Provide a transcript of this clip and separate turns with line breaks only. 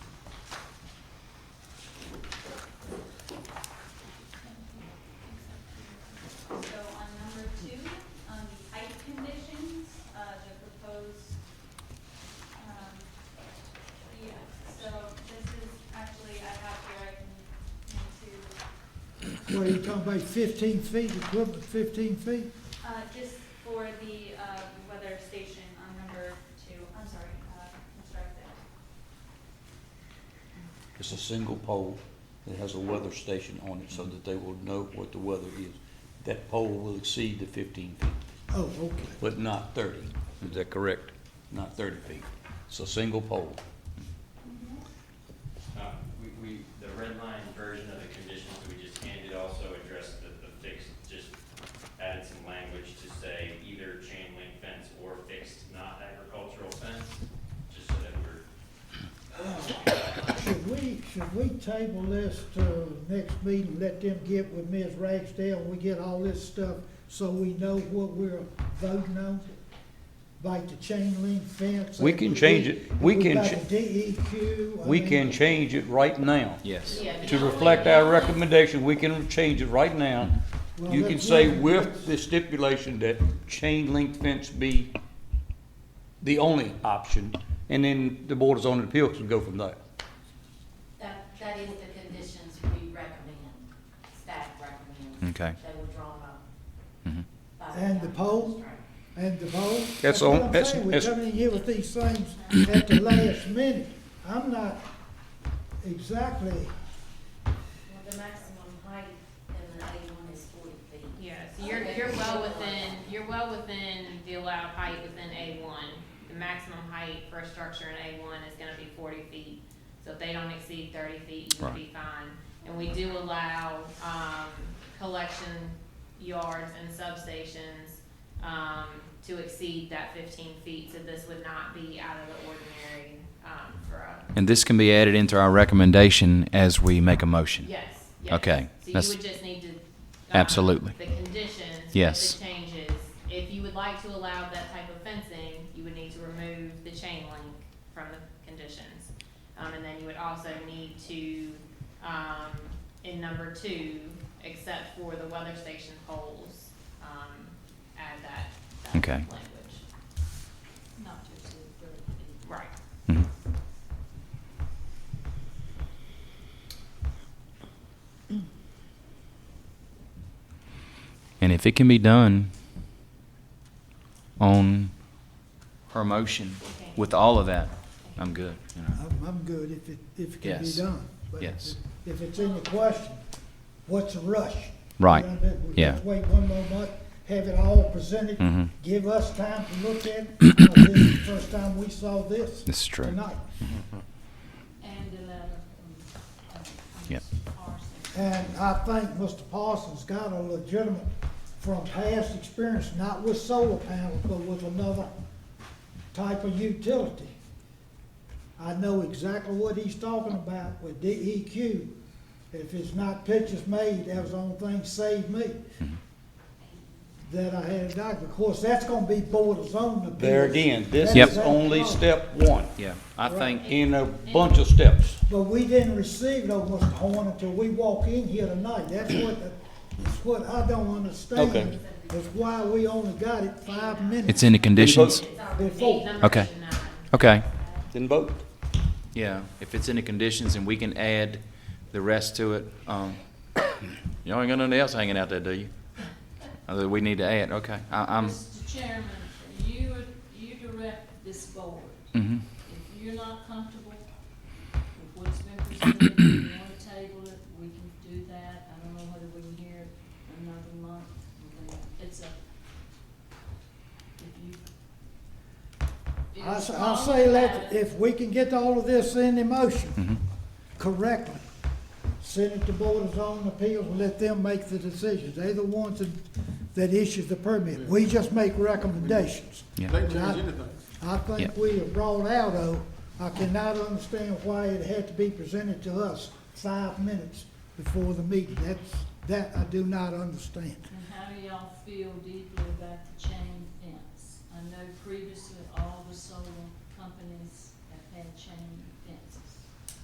um, uh, um,
What are you talking about, fifteen feet, equivalent fifteen feet?
Uh, just for the, uh, weather station on number two, I'm sorry, uh, I'm sorry, that-
It's a single pole that has a weather station on it so that they will know what the weather is. That pole will exceed the fifteen feet,
Oh, okay.
but not thirty,
Is that correct?
not thirty feet. It's a single pole.
Uh, We, we, the red line version of the conditions that we just handed also addressed the, the fixed, just added some language to say either chain link fence or fixed not agricultural fence, just so that
Should
we're,
we, should we table this to next meeting, let them get with Ms. Ragsdale, and we get all this stuff so we know what we're voting on? Like the chain link fence?
We can change it. We can
About
ch-
the DEQ. I
We
mean-
can change it right now.
Yes.
To reflect our recommendation, we can change it right now.
Well,
You can
let's
say
wait.
with the stipulation that chain link fence be the only option, and then the Board of Zoning Appeals can go from there.
That, that is the conditions we recommend, staff recommends.
Okay.
They were drawn up.
Mhm.
by
And the poll? And the vote?
That's
what
all-
I'm
that's-
saying, We're
that's-
coming in here with these things at the last minute. I'm not exactly,
Well, the maximum height in the A one is forty feet.
Yeah, so you're, you're well within, you're well within the allowed height within A one. The maximum height for a structure in A one is gonna be forty feet. So if they don't exceed thirty feet, you would be fine. And we do allow, um, collection yards and substations, um, to exceed that fifteen feet. So this would not be out of the ordinary, um, for a,
And this can be added into our recommendation as we make a motion?
Yes, yes.
Okay,
So
that's-
you would just need to. um,
Absolutely.
The conditions. with
Yes.
The changes. If you would like to allow that type of fencing, you would need to remove the chain link from the conditions. Um, and then you would also need to, um, in number two, except for the weather station poles, um, add that, that
Okay.
language.
Not to exceed thirty feet.
Right.
Mhm. And if it can be done on her motion with all of that, I'm good. you know.
I'm, I'm good if it, if it can be
Yes.
done. But
Yes.
If it's in the question, what's the rush? You
Right.
know what I mean? We
Yeah.
just Wait one more month, have it all presented,
Mhm.
give us time to look at it. 'cause This is the first time we saw this.
This is true.
Tonight.
And the letter from. uh, from
Yep.
Parsons.
And I think Mr. Parsons got a legitimate, from past experience, not with solar panels, but with another type of utility. I know exactly what he's talking about with DEQ. If it's not pictures made, that was the only thing saved me that I had a doctor. Of course, that's gonna be board of zoning appeals.
There again, this
That
Yep.
is only
that
step one
Yeah, I think,
in a bunch of steps.
But we didn't receive no Mr. Horn until we walk in here tonight. That's what, that's what I don't
Okay.
understand. Is why we only got it five
it's
minutes
in the conditions?
Eight,
before.
number
Okay.
nine.
Okay.
Then vote.
Yeah, if it's in the conditions and we can add the rest to it, um, you ain't got nothing else hanging out there, do you? Other we need to add, okay, I, I'm,
Mr. Chairman, you, you direct this board.
mhm.
If you're not comfortable with what's been presented, you want to table it, we can do that. I don't know whether we can hear it another month. but It's a, if you.
I, s- I say let, if we can get all of this in the
Mhm.
motion correctly, send it to Board of Zoning Appeals and let them make the decisions. They're the ones that, that issue the permit. We just make recommendations.
yeah,
And I- I think
Yeah.
we have brought out, though, I cannot understand why it had to be presented to us five minutes before the meeting. That's, that I do not understand.
And how do y'all feel deeply about the chain fence? I know previously all the solar companies have had chain